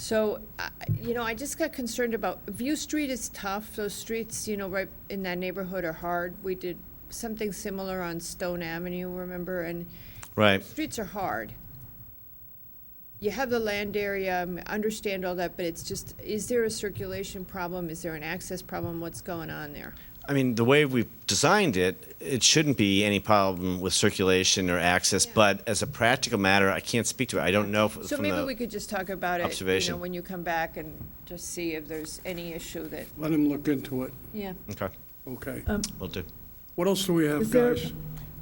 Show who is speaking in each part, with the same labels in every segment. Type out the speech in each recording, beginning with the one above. Speaker 1: So, I- you know, I just got concerned about, View Street is tough. Those streets, you know, right in that neighborhood are hard. We did something similar on Stone Avenue, remember? And
Speaker 2: Right.
Speaker 1: streets are hard. You have the land area, um, understand all that, but it's just, is there a circulation problem? Is there an access problem? What's going on there?
Speaker 2: I mean, the way we've designed it, it shouldn't be any problem with circulation or access,
Speaker 1: Yeah.
Speaker 2: but as a practical matter, I can't speak to it. I don't know if
Speaker 1: So
Speaker 2: from
Speaker 1: maybe we
Speaker 2: the,
Speaker 1: could just talk about it, you know,
Speaker 2: observation.
Speaker 1: when you come back and just see if there's any issue that,
Speaker 3: Let him look into it,
Speaker 1: yeah.
Speaker 2: okay,
Speaker 3: okay?
Speaker 4: Um,
Speaker 2: will do.
Speaker 3: What else do we have,
Speaker 4: Uh, Is there-
Speaker 3: guys?
Speaker 1: Um,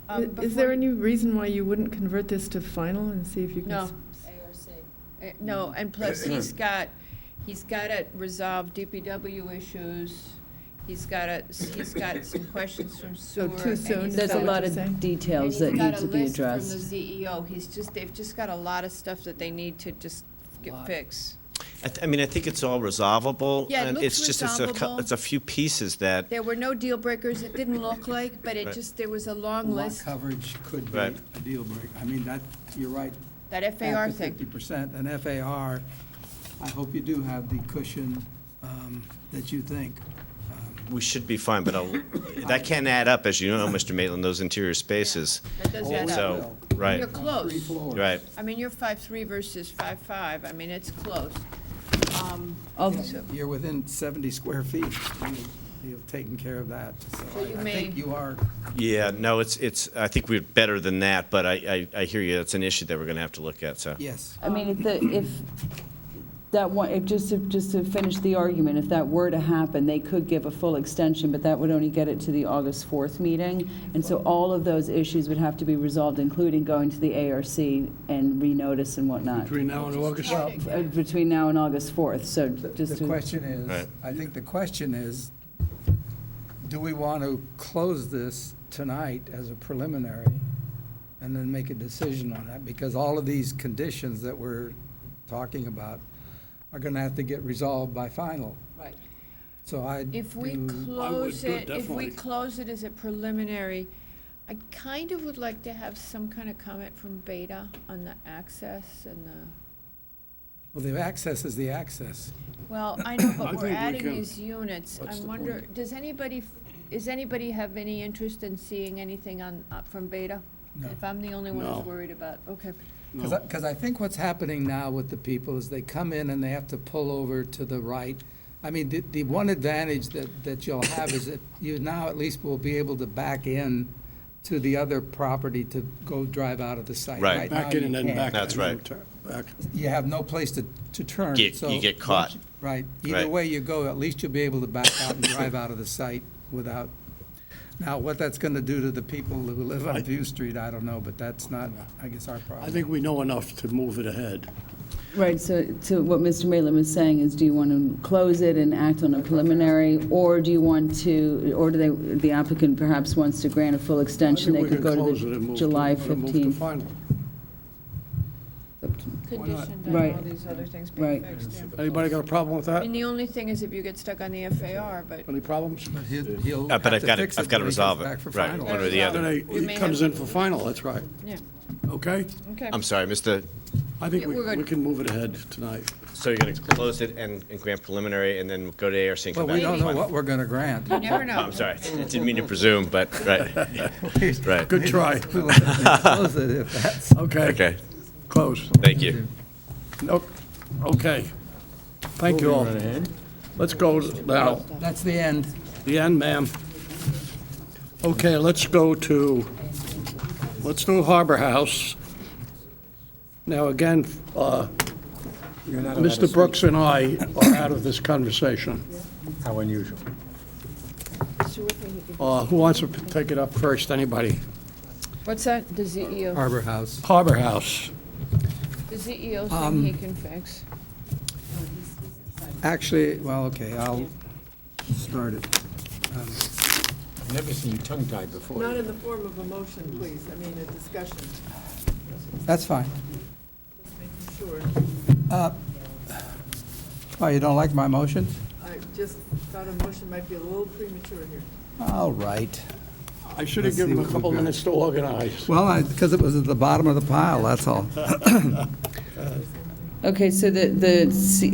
Speaker 4: I- Is
Speaker 1: before
Speaker 4: there
Speaker 1: you-
Speaker 4: any reason why you wouldn't convert this to final and see if you can?
Speaker 1: No.
Speaker 4: s-
Speaker 1: Uh, No, and plus, he's got, he's got to resolve DPW issues, he's got to, he's got some questions
Speaker 5: Oh,
Speaker 1: from sewer.
Speaker 4: So too
Speaker 1: and
Speaker 4: soon
Speaker 1: he's
Speaker 4: Is
Speaker 5: There's a
Speaker 4: that
Speaker 1: got-
Speaker 4: what
Speaker 5: lot
Speaker 4: you're saying?
Speaker 5: of details that
Speaker 1: and he's
Speaker 5: need
Speaker 1: got
Speaker 5: to
Speaker 1: a
Speaker 5: be
Speaker 1: list from
Speaker 5: addressed.
Speaker 1: the CEO, he's just, they've just got a lot of stuff that they need to just get
Speaker 5: Lot.
Speaker 1: fixed.
Speaker 2: I, th- I mean, I think it's all resolvable.
Speaker 1: Yeah, it
Speaker 2: and
Speaker 1: looks
Speaker 2: it's just it's a cou-
Speaker 1: resolvable.
Speaker 2: It's a few pieces that,
Speaker 1: There were no deal breakers, it didn't look like, but it
Speaker 2: Right.
Speaker 1: just, there was a long
Speaker 6: Lot
Speaker 1: list,
Speaker 6: coverage could be a
Speaker 2: Right.
Speaker 6: deal breaker. I mean, that, you're right.
Speaker 1: that FAR
Speaker 6: Fifty
Speaker 1: thing.
Speaker 6: percent, and FAR, I hope you do have the cushion um, that you think. Um,
Speaker 2: we should be fine, but I'll, that can add up, as you know, Mr. Maitland, those interior spaces.
Speaker 1: That does
Speaker 6: Always
Speaker 1: add up.
Speaker 2: So, right,
Speaker 1: You're close.
Speaker 6: Three floors.
Speaker 2: right.
Speaker 1: I mean, you're five-three versus five-five, I mean, it's close. Um,
Speaker 5: Of-
Speaker 6: Yeah, You're within seventy square feet. You- You've taken care of that, so
Speaker 1: So you
Speaker 6: I- I think
Speaker 1: may-
Speaker 6: you are.
Speaker 2: Yeah, no, it's, it's, I think we're better than that, but I, I, I hear you. It's an issue that we're going to have to look at, so.
Speaker 6: Yes.
Speaker 5: I mean, if, the- if that one, if, just to, just to finish the argument, if that were to happen, they could give a full extension, but that would only get it to the August 4th meeting. And so all of those issues would have to be resolved, including going to the ARC and renotice and whatnot,
Speaker 3: Between now and August?
Speaker 5: uh, between now and August 4th, so
Speaker 6: The-
Speaker 5: just
Speaker 6: The
Speaker 5: to.
Speaker 6: question
Speaker 2: Right.
Speaker 6: is, I think the question is, do we want to close this tonight as a preliminary and then make a decision on that? Because all of these conditions that we're talking about are going to have to get resolved by final.
Speaker 1: Right.
Speaker 6: So I
Speaker 1: If we
Speaker 6: do,
Speaker 1: close
Speaker 3: do it
Speaker 1: it, if we
Speaker 3: definitely.
Speaker 1: close it as a preliminary, I kind of would like to have some kind of comment from Beta on the access and the,
Speaker 6: well, the access is the access.
Speaker 1: well, I know,
Speaker 3: I
Speaker 1: but
Speaker 3: think
Speaker 1: we're
Speaker 3: we
Speaker 1: adding
Speaker 3: can-
Speaker 1: these units.
Speaker 3: What's
Speaker 1: I
Speaker 3: the
Speaker 1: wonder, does anybody, f- is anybody have any interest in seeing anything on, uh, from Beta?
Speaker 6: No.
Speaker 1: If I'm the only one
Speaker 3: No.
Speaker 1: who's worried about, okay.
Speaker 3: No.
Speaker 6: Because I think what's happening now with the people is they come in and they have to pull over to the right. I mean, the, the one advantage that, that you'll have is that you now at least will be able to back in to the other property to go drive out of the site.
Speaker 2: Right.
Speaker 6: now
Speaker 3: Back in and
Speaker 6: you
Speaker 3: then
Speaker 6: can't.
Speaker 3: back.
Speaker 2: That's
Speaker 3: and then
Speaker 2: right.
Speaker 3: turn Back.
Speaker 6: You have no place to, to turn,
Speaker 2: Get-
Speaker 6: so.
Speaker 2: you get caught.
Speaker 6: Right.
Speaker 2: Right.
Speaker 6: Either way you go, at least you'll be able to back out and drive out of the site without, now, what that's going to do to the people who live on View Street, I don't know, but that's not, I guess, our problem.
Speaker 3: I think we know enough to move it ahead.
Speaker 5: Right, so, so what Mr. Maitland was saying is, do you want to close it and act on a preliminary, or do you want to, or do they, the applicant perhaps wants to grant a full extension?
Speaker 3: I
Speaker 5: They
Speaker 3: think we
Speaker 5: could
Speaker 3: can
Speaker 5: go
Speaker 3: close
Speaker 5: to
Speaker 3: it and
Speaker 5: the
Speaker 3: move
Speaker 5: July
Speaker 3: and move to
Speaker 5: 15th.
Speaker 3: final.
Speaker 1: Conditioned
Speaker 5: on
Speaker 1: on
Speaker 5: all
Speaker 1: all
Speaker 5: Right.
Speaker 1: these other things
Speaker 5: being
Speaker 1: being
Speaker 5: Right.
Speaker 1: fixed,
Speaker 3: Anybody got a problem with
Speaker 1: I
Speaker 3: that?
Speaker 1: mean, the only thing is if you get stuck on the FAR, but
Speaker 3: Any problems?
Speaker 6: But he'll- he'll
Speaker 2: Uh, But
Speaker 6: have
Speaker 2: I've
Speaker 6: to
Speaker 2: got
Speaker 6: fix
Speaker 2: to, I've got to
Speaker 6: when he comes
Speaker 2: resolve
Speaker 6: back
Speaker 2: it,
Speaker 6: for
Speaker 2: right,
Speaker 6: final.
Speaker 2: one or the
Speaker 1: Yeah.
Speaker 2: other.
Speaker 3: Then
Speaker 1: We
Speaker 3: he
Speaker 1: may
Speaker 3: comes in
Speaker 1: have-
Speaker 3: for final, that's right.
Speaker 1: yeah,
Speaker 3: Okay?
Speaker 1: okay.
Speaker 2: I'm sorry, Mr.
Speaker 3: I think
Speaker 1: Yeah,
Speaker 3: we
Speaker 1: we're good.
Speaker 3: we can move it ahead tonight.
Speaker 2: So you're going to close it and, and grant preliminary and then go to ARC and
Speaker 6: Well,
Speaker 2: come back?
Speaker 6: we don't know
Speaker 2: Fine.
Speaker 6: what we're going to grant.
Speaker 1: You never know.
Speaker 2: I'm sorry, didn't mean to presume, but, right, right.
Speaker 3: Good try.
Speaker 6: We'll close it if that's-
Speaker 3: Okay.
Speaker 2: Okay,
Speaker 3: Close.
Speaker 2: thank you.
Speaker 3: Nope. Okay. Thank you all. Let's go now.
Speaker 6: That's the end.
Speaker 3: The end, ma'am. Okay, let's go to, let's do Harbor House. Now, again, uh, Mr. Brooks and I are out of this conversation.
Speaker 7: How unusual.
Speaker 3: Uh, Who wants to take it up first? Anybody?
Speaker 1: What's that, the CEO?
Speaker 6: Harbor House.
Speaker 3: Harbor House.
Speaker 1: The CEO thing
Speaker 5: Um,
Speaker 1: he can fix.
Speaker 6: Actually, well, okay, I'll start it.
Speaker 7: I've never seen you tongue-tied before.
Speaker 4: Not in the form of a motion, please, I mean, a discussion,
Speaker 6: That's fine.
Speaker 4: just making sure.
Speaker 6: Oh, you don't like my motion?
Speaker 4: I just thought a motion might be a little premature here.
Speaker 6: All right.
Speaker 3: I should have
Speaker 6: Let's
Speaker 3: given
Speaker 6: see
Speaker 3: him a
Speaker 6: what
Speaker 3: couple
Speaker 6: we've got.
Speaker 3: minutes to organize.
Speaker 6: Well, because it was at the bottom of the pile, that's all.
Speaker 5: Okay, so the, the C-